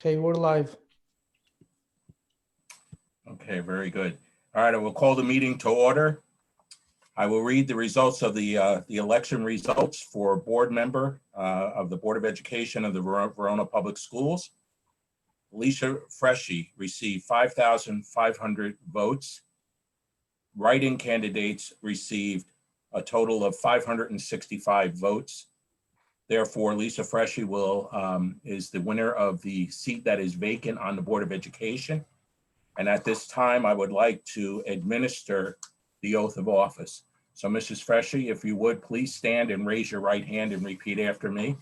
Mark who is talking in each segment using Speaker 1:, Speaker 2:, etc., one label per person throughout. Speaker 1: Okay, we're live.
Speaker 2: Okay, very good. All right, I will call the meeting to order. I will read the results of the, uh, the election results for board member uh, of the Board of Education of the Ver- Verona Public Schools. Alicia Freshy received 5,500 votes. Writing candidates received a total of 565 votes. Therefore, Lisa Freshy will, um, is the winner of the seat that is vacant on the Board of Education. And at this time, I would like to administer the oath of office. So Mrs. Freshy, if you would, please stand and raise your right hand and repeat after me.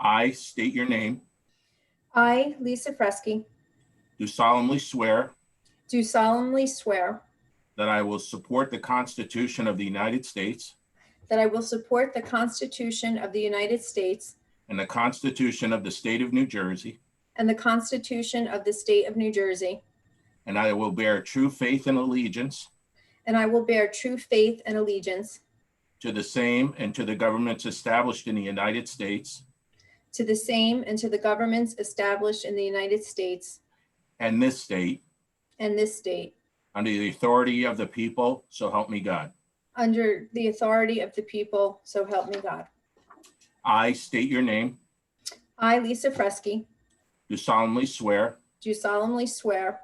Speaker 2: I state your name,
Speaker 3: I, Lisa Fresky,
Speaker 2: do solemnly swear
Speaker 3: do solemnly swear
Speaker 2: that I will support the Constitution of the United States
Speaker 3: that I will support the Constitution of the United States
Speaker 2: and the Constitution of the State of New Jersey,
Speaker 3: and the Constitution of the State of New Jersey,
Speaker 2: and I will bear true faith and allegiance
Speaker 3: and I will bear true faith and allegiance
Speaker 2: to the same and to the governments established in the United States
Speaker 3: to the same and to the governments established in the United States
Speaker 2: and this state
Speaker 3: and this state,
Speaker 2: under the authority of the people, so help me God.
Speaker 3: under the authority of the people, so help me God.
Speaker 2: I state your name,
Speaker 3: I, Lisa Fresky,
Speaker 2: do solemnly swear
Speaker 3: do solemnly swear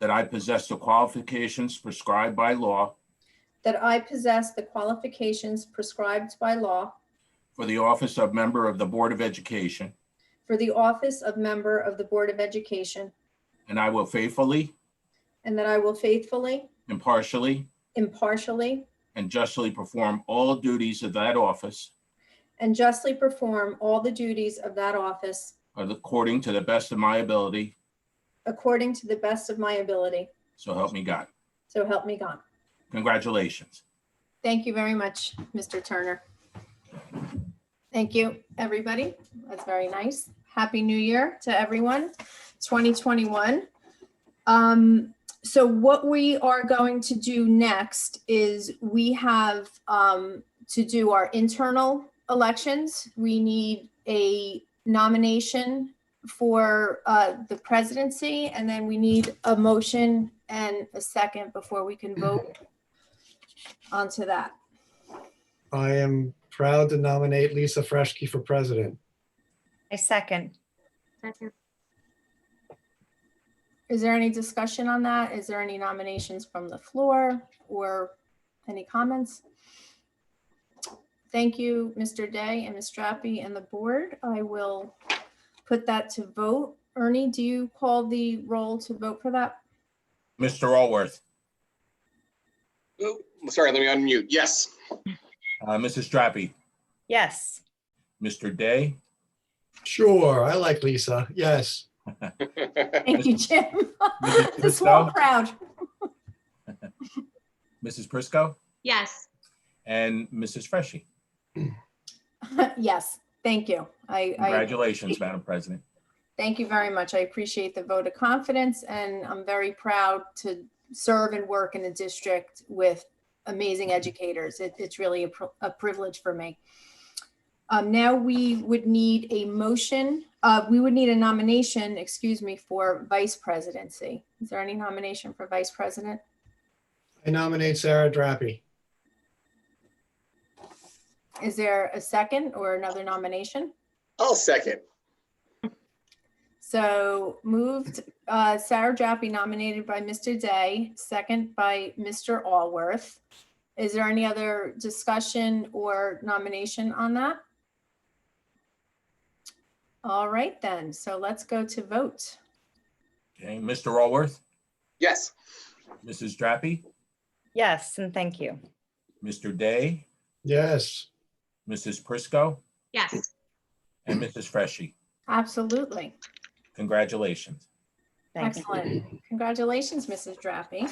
Speaker 2: that I possess the qualifications prescribed by law
Speaker 3: that I possess the qualifications prescribed by law
Speaker 2: for the office of member of the Board of Education,
Speaker 3: for the office of member of the Board of Education,
Speaker 2: and I will faithfully,
Speaker 3: and that I will faithfully,
Speaker 2: impartially,
Speaker 3: impartially,
Speaker 2: and justly perform all duties of that office
Speaker 3: and justly perform all the duties of that office
Speaker 2: according to the best of my ability,
Speaker 3: according to the best of my ability.
Speaker 2: so help me God.
Speaker 3: So help me God.
Speaker 2: Congratulations.
Speaker 3: Thank you very much, Mr. Turner. Thank you, everybody. That's very nice. Happy New Year to everyone, 2021. Um, so what we are going to do next is we have um, to do our internal elections. We need a nomination for uh, the presidency, and then we need a motion and a second before we can vote onto that.
Speaker 1: I am proud to nominate Lisa Fresky for president.
Speaker 4: I second.
Speaker 3: Is there any discussion on that? Is there any nominations from the floor or any comments? Thank you, Mr. Day and Ms. Drappi and the board. I will put that to vote. Ernie, do you call the roll to vote for that?
Speaker 2: Mr. Allworth,
Speaker 5: Oh, Sorry, let me unmute. Yes,
Speaker 2: uh, Mrs. Drappi,
Speaker 4: Yes.
Speaker 2: Mr. Day,
Speaker 1: Sure, I like Lisa. Yes,
Speaker 3: Thank you, Jim.
Speaker 2: Mrs.
Speaker 3: The small
Speaker 2: Prisco,
Speaker 3: crowd.
Speaker 2: Mrs. Prisco,
Speaker 6: Yes,
Speaker 2: and Mrs. Freshy.
Speaker 3: Yes, thank you. I, I
Speaker 2: Congratulations, Madam President.
Speaker 3: Thank you very much. I appreciate the vote of confidence and I'm very proud to serve and work in a district with amazing educators. It, it's really a, pr- a privilege for me. Um, now we would need a motion, uh, we would need a nomination, excuse me, for vice presidency. Is there any nomination for vice president?
Speaker 1: I nominate Sarah Drappi.
Speaker 3: Is there a second or another nomination?
Speaker 5: I'll second.
Speaker 3: So moved, uh, Sarah Jaffe nominated by Mr. Day, second by Mr. Allworth. Is there any other discussion or nomination on that? All right then, so let's go to vote.
Speaker 2: Okay, Mr. Allworth,
Speaker 5: Yes,
Speaker 2: Mrs. Drappi,
Speaker 4: Yes, and thank you.
Speaker 2: Mr. Day,
Speaker 1: Yes,
Speaker 2: Mrs. Prisco,
Speaker 6: yes,
Speaker 2: and Mrs. Freshy.
Speaker 3: Absolutely.
Speaker 2: Congratulations.
Speaker 4: Thank you.
Speaker 3: Excellent. Congratulations, Mrs. Jaffe.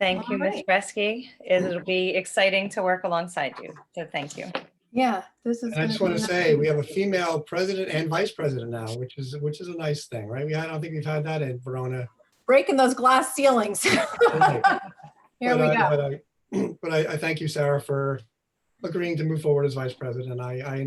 Speaker 4: Thank you, Ms.
Speaker 3: Alright.
Speaker 4: Bresky. It'll be exciting to work alongside you. So thank you.
Speaker 3: Yeah, this is.
Speaker 1: and I just
Speaker 3: gonna
Speaker 1: want
Speaker 3: be
Speaker 1: to
Speaker 3: nice.
Speaker 1: say, we have a female president and vice president now, which is, which is a nice thing, right? We, I don't think we've had that in Verona.
Speaker 3: Breaking those glass ceilings. Here we
Speaker 1: But uh, I-
Speaker 3: go.
Speaker 1: but I- But I, I thank you, Sarah, for agreeing to move forward as vice president. I, I